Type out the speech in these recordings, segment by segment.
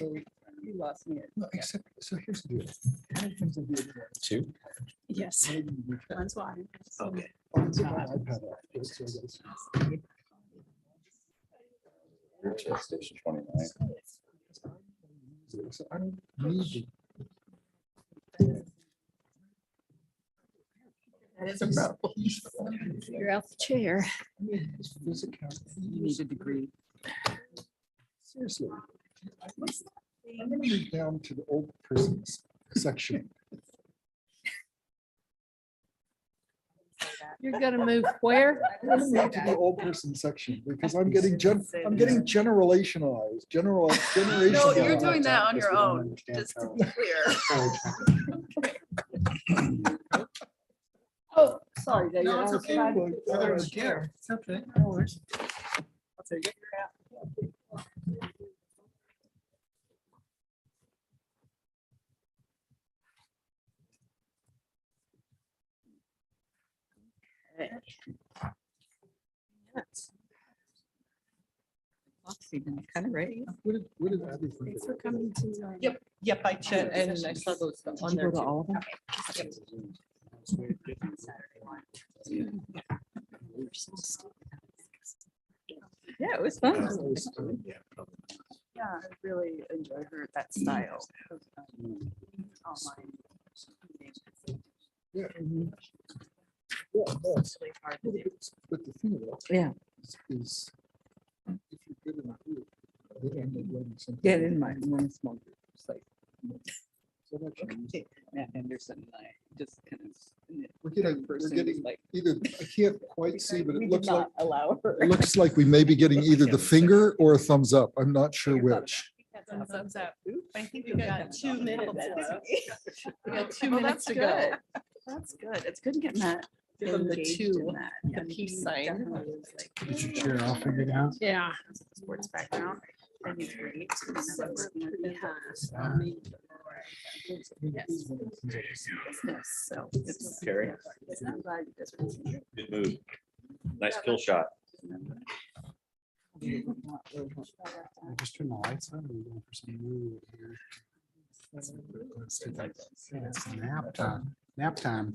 You lost me. No, Except, so here's the deal. How many things have you done? Two? Yes. Maybe you can- That's why. Okay. Oh, it's in my iPad app. It's- it's- Station twenty-nine. it's- So I don't need That is a problem. You're out the chair. You need a degree. Seriously. I'm gonna read down to the old persons section. You're gonna move where? I'm gonna read to the old person section because I'm getting gen, I'm getting generationalized, general, generation. No, you're doing that on your own, just to be clear. Oh, sorry. Dave, I was trying to- It's okay. No worries. I'll take it. Yes. Foxy, kind of ready. What did, what did Abby think? Thanks for about coming to. uh, Yep, yep, I checked and I saw those on there too. Yeah, it was that? fun. That was fun. Yeah, I really enjoy her, that style. of, um, online meeting. Yeah. Mhm. Yeah, it was. It's really hard to Well, do. But it's- but the thing about. Yeah. is- Is. If you're good in a group, they end up learning something. Yeah, in my, one small group, it's like, So much. okay, Matt Anderson and I just kind of. We're getting, third we're person getting was like, either, I can't quite see, but We it did looks like, not allow her. it looks like we may be getting either the finger or a thumbs up. I'm not sure which. Thumbs up. I think we've got two minutes. left. We got two Well, that's minutes to go. good. That's good. It's good to get Matt Give them the engaged in two, that. the peace sign. Did you chair off figured out? Yeah. Sports background. and he's great, and I love working with him. Yes. Yes, so. it's- Carrie. Yes, I'm glad you guys were listening. Good move. Nice kill shot. Just turn the lights on and go for some mood here. It's nap time, nap time.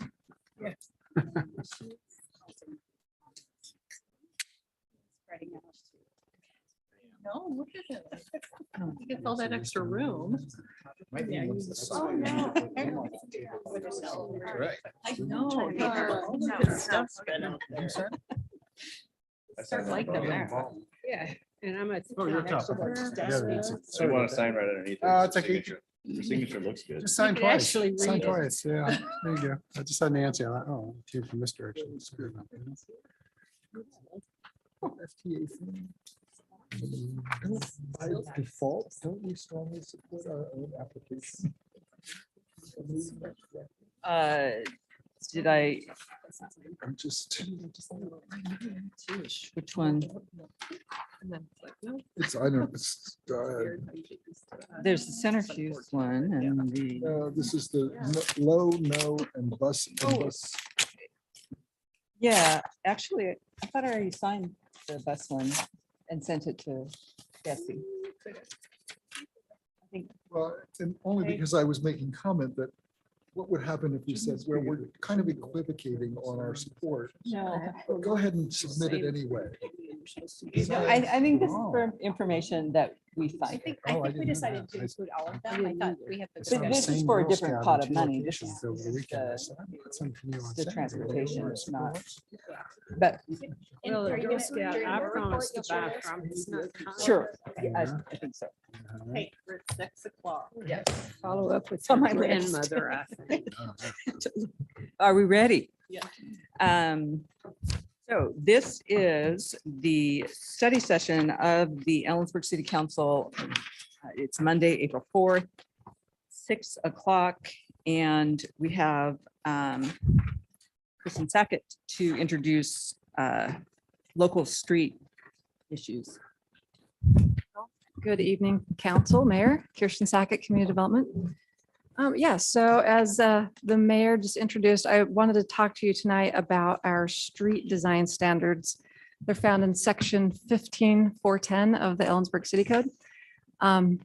Spreading out. No, look at it. You can fill that extra room. Might be Yeah, ones that oh, are- no. Right. I know. Yeah. Stuff's been out there. Start like them there. Yeah, and I'm a. Oh, you're tough. So you want to sign right underneath. it, Uh, so it's like- signature- your Signature looks good. Just sign could twice. actually Sign read it. twice, yeah. There you go. I just saw Nancy. I thought, oh, it came from this direction. Screw it up. Don't- By default, don't we strongly support our own application? Uh, did I, I'm just, which one? it's, I know, it's, uh, There's the centrifuge one and the. uh, this is the no- low, no, and bus. and Oh. bus. Yeah, actually, I thought I already signed the bus one and sent it to Jesse. Well, and only Okay. because I was making comment that what would happen if we said, well, we're kind of equivocating on our support. No. but Go ahead and submit it anyway. I, I think this is for information that we I signed. think, Oh, I I think we didn't know decided that. to I- include all of them. I thought we had. the It's not But discussion. this is same for a Girl different Scout pot of and two money. This locations is over the just weekend. the- I said, "Oh, that's something new on the Saturday." transportation, Well, it's I not- said, But And Well, the are you Girl gonna- Scout, during I your report, promised to you'll buy share this? from him. sure, I, "Well, I think so. yeah." Okay, we're at six o'clock. Yes. Follow up with on your my list. grandmother, I think. Are we ready? Yeah. Um, so this is the study session of the Ellensburg City Council. Uh, It's Monday, April fourth, six o'clock, and we have, um, Kristen Sackett to introduce, uh, local street issues. Good evening, Council, Mayor, Kirsten Sackett, Community Development. Um, Yeah, so as uh, the mayor just introduced, I wanted to talk to you tonight about our street design standards. They're found in section 15410 of the Ellensburg City Code. Um,